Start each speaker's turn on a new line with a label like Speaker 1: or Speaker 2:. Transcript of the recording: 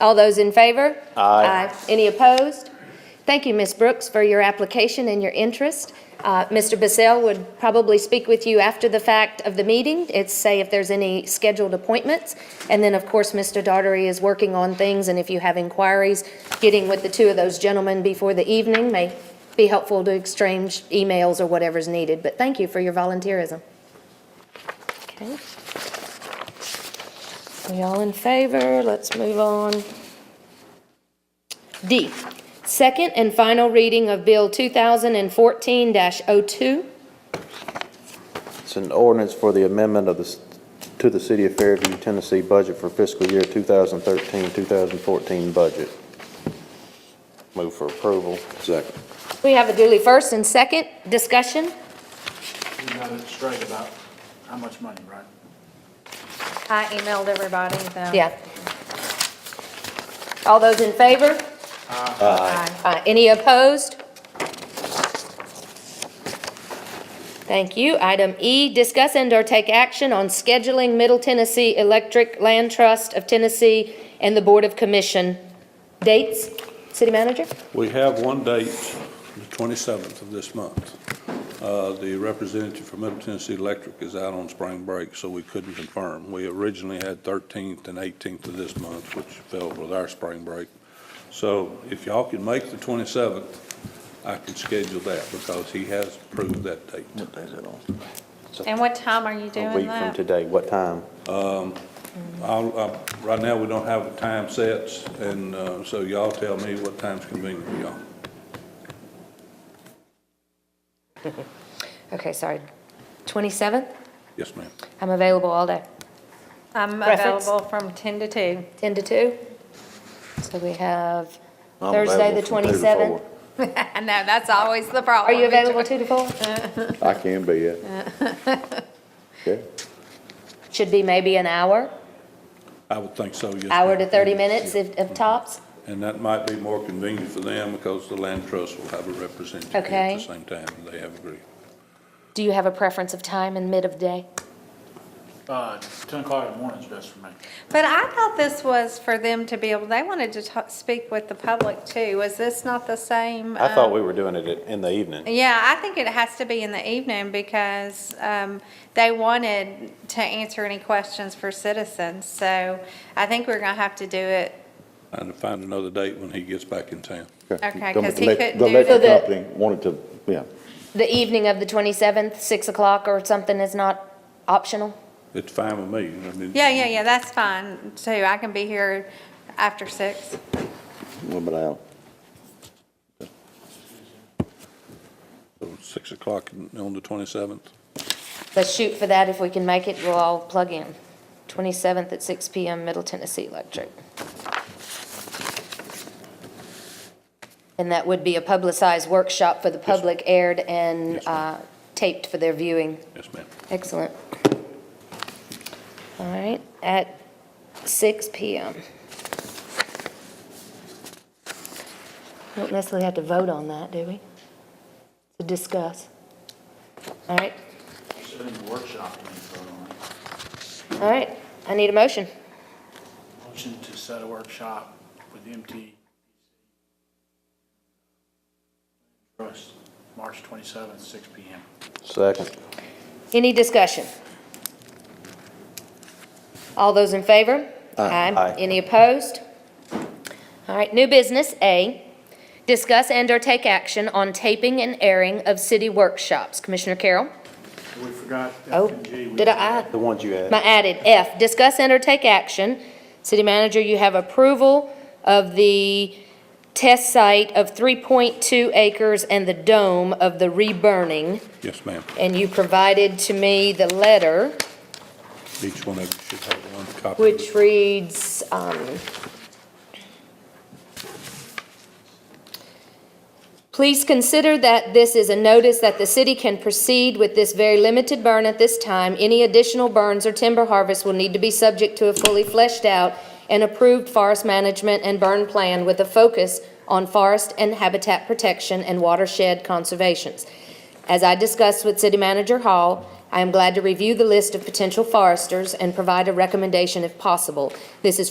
Speaker 1: All those in favor?
Speaker 2: Aye.
Speaker 1: Any opposed? Thank you, Ms. Brooks, for your application and your interest. Uh, Mr. Bissell would probably speak with you after the fact of the meeting, it's say if there's any scheduled appointments. And then, of course, Mr. Daugherty is working on things, and if you have inquiries, getting with the two of those gentlemen before the evening may be helpful to exchange emails or whatever's needed. But thank you for your volunteerism. Okay. We all in favor? Let's move on. D, second and final reading of Bill 2014-02.
Speaker 2: It's an ordinance for the amendment of the, s- to the City of Fairview, Tennessee budget for fiscal year 2013, 2014 budget. Move for approval. Second.
Speaker 1: We have a duly first and second discussion.
Speaker 3: You got it straight about how much money, right?
Speaker 4: I emailed everybody the.
Speaker 1: Yeah. All those in favor?
Speaker 4: Aye.
Speaker 1: Uh, Any opposed? Thank you. Item E, discuss and/or take action on scheduling Middle Tennessee Electric Land Trust of Tennessee and the Board of Commission. Dates, city manager?
Speaker 5: We have one date, the 27th of this month. Uh, The representative from Middle Tennessee Electric is out on spring break, so we couldn't confirm. We originally had 13th and 18th of this month, which fell with our spring break. So if y'all can make the 27th, I can schedule that because he has approved that date.
Speaker 2: What day is it on?
Speaker 4: And what time are you
Speaker 2: A
Speaker 4: doing
Speaker 2: week from
Speaker 4: that?
Speaker 2: today. What time?
Speaker 5: I'll- uh, Right now, we don't have time sets, and uh, so y'all tell me what time's convenient for y'all.
Speaker 1: Okay, sorry. 27th?
Speaker 5: Yes, ma'am.
Speaker 1: I'm available all day.
Speaker 4: I'm
Speaker 1: Preference?
Speaker 4: available from ten to two.
Speaker 1: 10 to 2? So we have Thursday, the 27th.
Speaker 4: I know, that's always the
Speaker 1: Are
Speaker 4: problem.
Speaker 1: you available 2 to 4?
Speaker 6: I can be, yeah. Okay.
Speaker 1: Should be maybe an hour,
Speaker 5: I would think so, yes.
Speaker 1: hour to
Speaker 5: ma'am.
Speaker 1: 30 minutes
Speaker 5: Yeah.
Speaker 1: if of tops.
Speaker 5: And that might be more convenient for them because the land trust will have a representative at
Speaker 1: Okay.
Speaker 5: the same time, and they have agreed.
Speaker 1: Do you have a preference of time in mid of day?
Speaker 3: Uh, ten o'clock in the morning is best for me.
Speaker 4: But I thought this was for them to be able, they wanted to talk, speak with the public too. Was this not the same?
Speaker 2: I thought
Speaker 4: um,
Speaker 2: we were doing it at- in the evening.
Speaker 4: Yeah, I think it has to be in the evening because um, they wanted to answer any questions for citizens. So I think we're going to have to do it,
Speaker 5: And find another date when he gets back in town.
Speaker 4: Okay,
Speaker 6: The
Speaker 4: 'cause he
Speaker 6: elec-
Speaker 4: couldn't
Speaker 6: The
Speaker 4: do
Speaker 6: electric
Speaker 1: that.
Speaker 6: company wanted to, yeah,
Speaker 1: The evening of the 27th, 6 o'clock or something is not optional?
Speaker 5: It's fine with me. I mean,
Speaker 4: yeah, yeah, yeah, that's fine too. I can be here after six.
Speaker 6: a little bit out.
Speaker 5: so Six o'clock on the 27th.
Speaker 1: Let's shoot for that. If we can make it, we'll all plug in. 27th at 6 PM, Middle Tennessee Electric. And that would be a publicized workshop for the public aired and
Speaker 5: Yes, ma'am.
Speaker 1: uh, taped for their viewing.
Speaker 5: Yes, ma'am.
Speaker 1: Excellent. All right, at 6 PM. Don't necessarily have to vote on that, do we? To discuss. All right,
Speaker 3: Sit in the workshop and vote on it.
Speaker 1: all right, I need a motion.
Speaker 3: Motion to set a workshop with MT. Trust, March twenty-seventh, six P M.
Speaker 2: Second.
Speaker 1: Any discussion? All those in favor?
Speaker 2: Aye.
Speaker 1: Any opposed? All right, new business, A, discuss and/or take action on taping and airing of city workshops. Commissioner Carroll?
Speaker 3: We forgot
Speaker 1: Oh,
Speaker 3: F and G. We-
Speaker 1: did I,
Speaker 2: The ones you
Speaker 1: my
Speaker 2: had.
Speaker 1: added, F, discuss and/or take action. City manager, you have approval of the test site of 3.2 acres and the dome of the reburning,
Speaker 5: Yes, ma'am.
Speaker 1: and you provided to me the letter.
Speaker 5: Each one of you should have one copy. of it.
Speaker 1: which reads, um, Please consider that this is a notice that the city can proceed with this very limited burn at this time. Any additional burns or timber harvest will need to be subject to a fully fleshed out and approved forest management and burn plan with a focus on forest and habitat protection and watershed conservations. As I discussed with City Manager Hall, I am glad to review the list of potential foresters and provide a recommendation if possible. This is